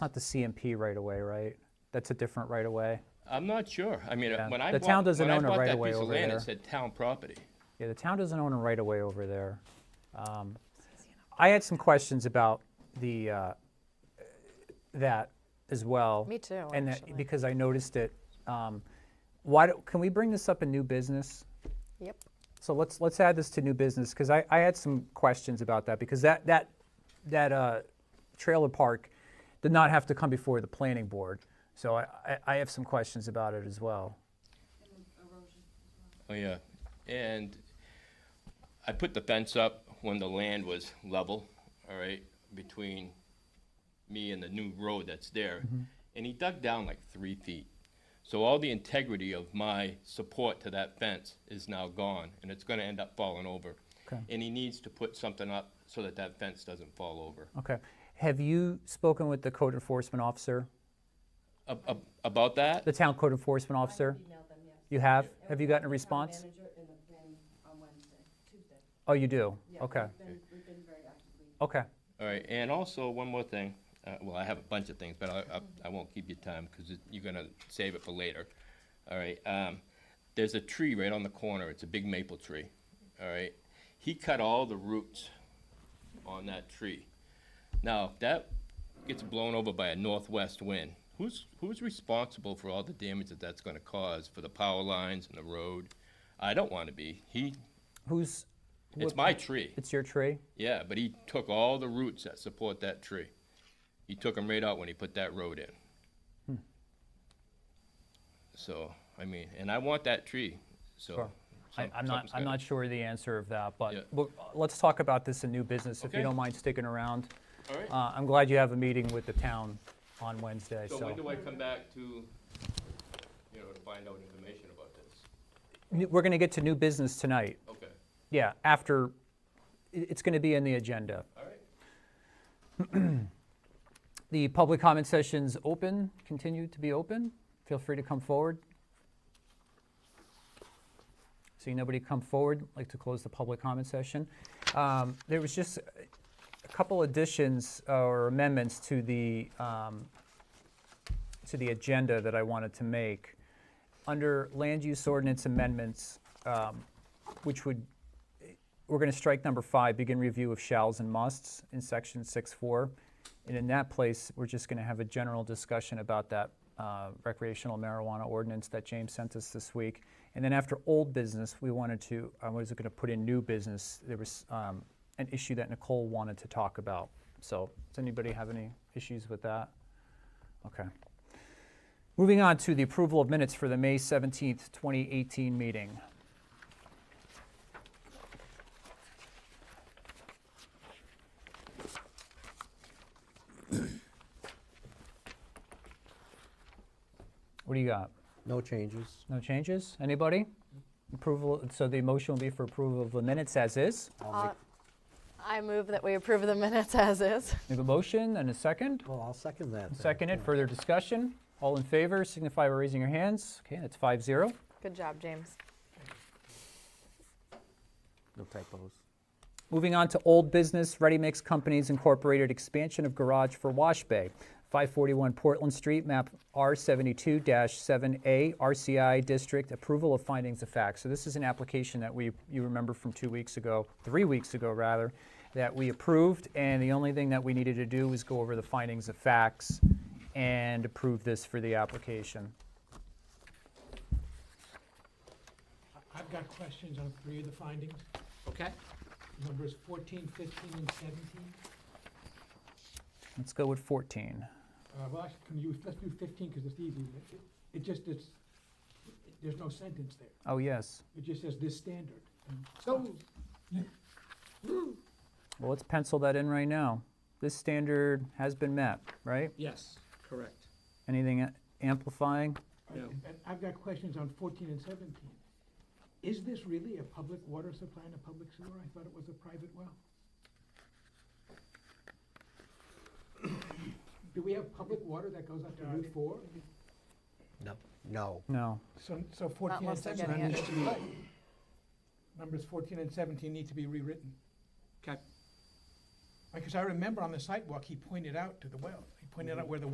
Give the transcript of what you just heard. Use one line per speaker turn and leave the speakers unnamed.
Not the CMP right away, right? That's a different right away.
I'm not sure. I mean, uh,
Yeah,
when I
the
bought,
town doesn't
when I
own a
bought that
right-of-way
piece of
over
land,
there.
it said town property.
Yeah, the town doesn't own a right of way over there. Um, I had some questions about the, uh, that as well.
Me too,
And
actually.
that, because I noticed it. Um, Why, do- can we bring this up in new business?
Yep.
So let's, let's add this to new business, because I, I had some questions about that, because that, that, that uh, trailer park did not have to come before the planning board. So I, I- I have some questions about it as well.
Oh, yeah. And I put the fence up when the land was level, all right, between me and the new road that's there.
Mm-hmm.
And he dug down like three feet. So all the integrity of my support to that fence is now gone, and it's gonna end up falling over.
Okay.
And he needs to put something up so that that fence doesn't fall over.
Okay. Have you spoken with the code enforcement officer?
Ab- ab- About that?
The town code enforcement officer?
Emailed them, yes.
You have? Have you gotten a
Town
response?
Manager and the planning on Wednesday, Tuesday.
Oh, you do?
Yeah,
Okay,
We've been, we've been very actively.
okay.
All right, and also, one more thing, uh, well, I have a bunch of things, but I, I- I won't keep you time, because you're gonna save it for later. All right, um, there's a tree right on the corner, it's a big maple tree, all right? He cut all the roots on that tree. Now, if that gets blown over by a northwest wind, who's, who's responsible for all the damage that that's gonna cause for the power lines and the road? I don't wanna be, he,
Who's,
it's
What-
my tree.
it's your tree?
Yeah, but he took all the roots that support that tree. He took them right out when he put that road in.
Hmm.
So, I mean, and I want that tree, so.
Sure. I-
some-
I'm not,
something's
I'm
gotta-
not sure the answer of that,
Yeah.
but we'll- let's talk about this in new business, if you
Okay.
don't mind sticking around.
All right.
Uh, I'm glad you have a meeting with the town on Wednesday,
So when do
so.
I come back to, you know, to find out information about this?
N- We're going to get to new business tonight.
Okay,
Yeah, after, i- it's going to be in the agenda.
all right.
The public comment session's open, continue to be open. Feel free to come forward. Seeing nobody come forward, I'd like to close the public comment session. Um, There was just a couple additions or amendments to the, um, to the agenda that I wanted to make. Under land use ordinance amendments, um, which would, we're going to strike number five, begin review of shalls and musts in section six four. And in that place, we're just going to have a general discussion about that uh, recreational marijuana ordinance that James sent us this week. And then after old business, we wanted to, I was going to put in new business. There was um, an issue that Nicole wanted to talk about. So does anybody have any issues with that? Okay. Moving on to the approval of minutes for the May 17th, 2018 meeting. What do you got?
No changes.
No changes? Anybody? Approval, so the motion will be for approval of the minutes as is.
I'll make,
I move that we approve the minutes as is.
We have a motion and a second.
well, I'll second that. then.
Seconded, further discussion. All in favor signify by raising your hands. Okay, that's five zero.
Good job, James.
No typos.
Moving on to old business, Ready Mix Companies Incorporated expansion of garage for wash bay. 541 Portland Street, map R72-7A, RCI District, approval of findings of fact. So this is an application that we, you remember from two weeks ago, three weeks ago rather, that we approved, and the only thing that we needed to do was go over the findings of facts and approve this for the application.
I- I've got questions on three of the findings,
Okay,
numbers 14, 15, and 17.
Let's go with 14.
Uh, Well, actually, can you, let's do 15, because it's easy. It- it- It just, it's, it- there's no sentence there.
Oh, yes.
It just says this standard. and
go.
stop.
Well, let's pencil that in right now. This standard has been met, right?
Yes, correct.
Anything a- amplifying?
Yeah.
And I've got questions on 14 and 17. Is this really a public water supply and a public sewer? I thought it was a private well. Do we have public water that goes up to Route 4?
No. No.
No.
So, so 14 and
unless they're
17
getting it.
needs to be, numbers 14 and 17 need to be rewritten.
Okay.
Because I remember on the sidewalk, he pointed out to the well, he pointed out where the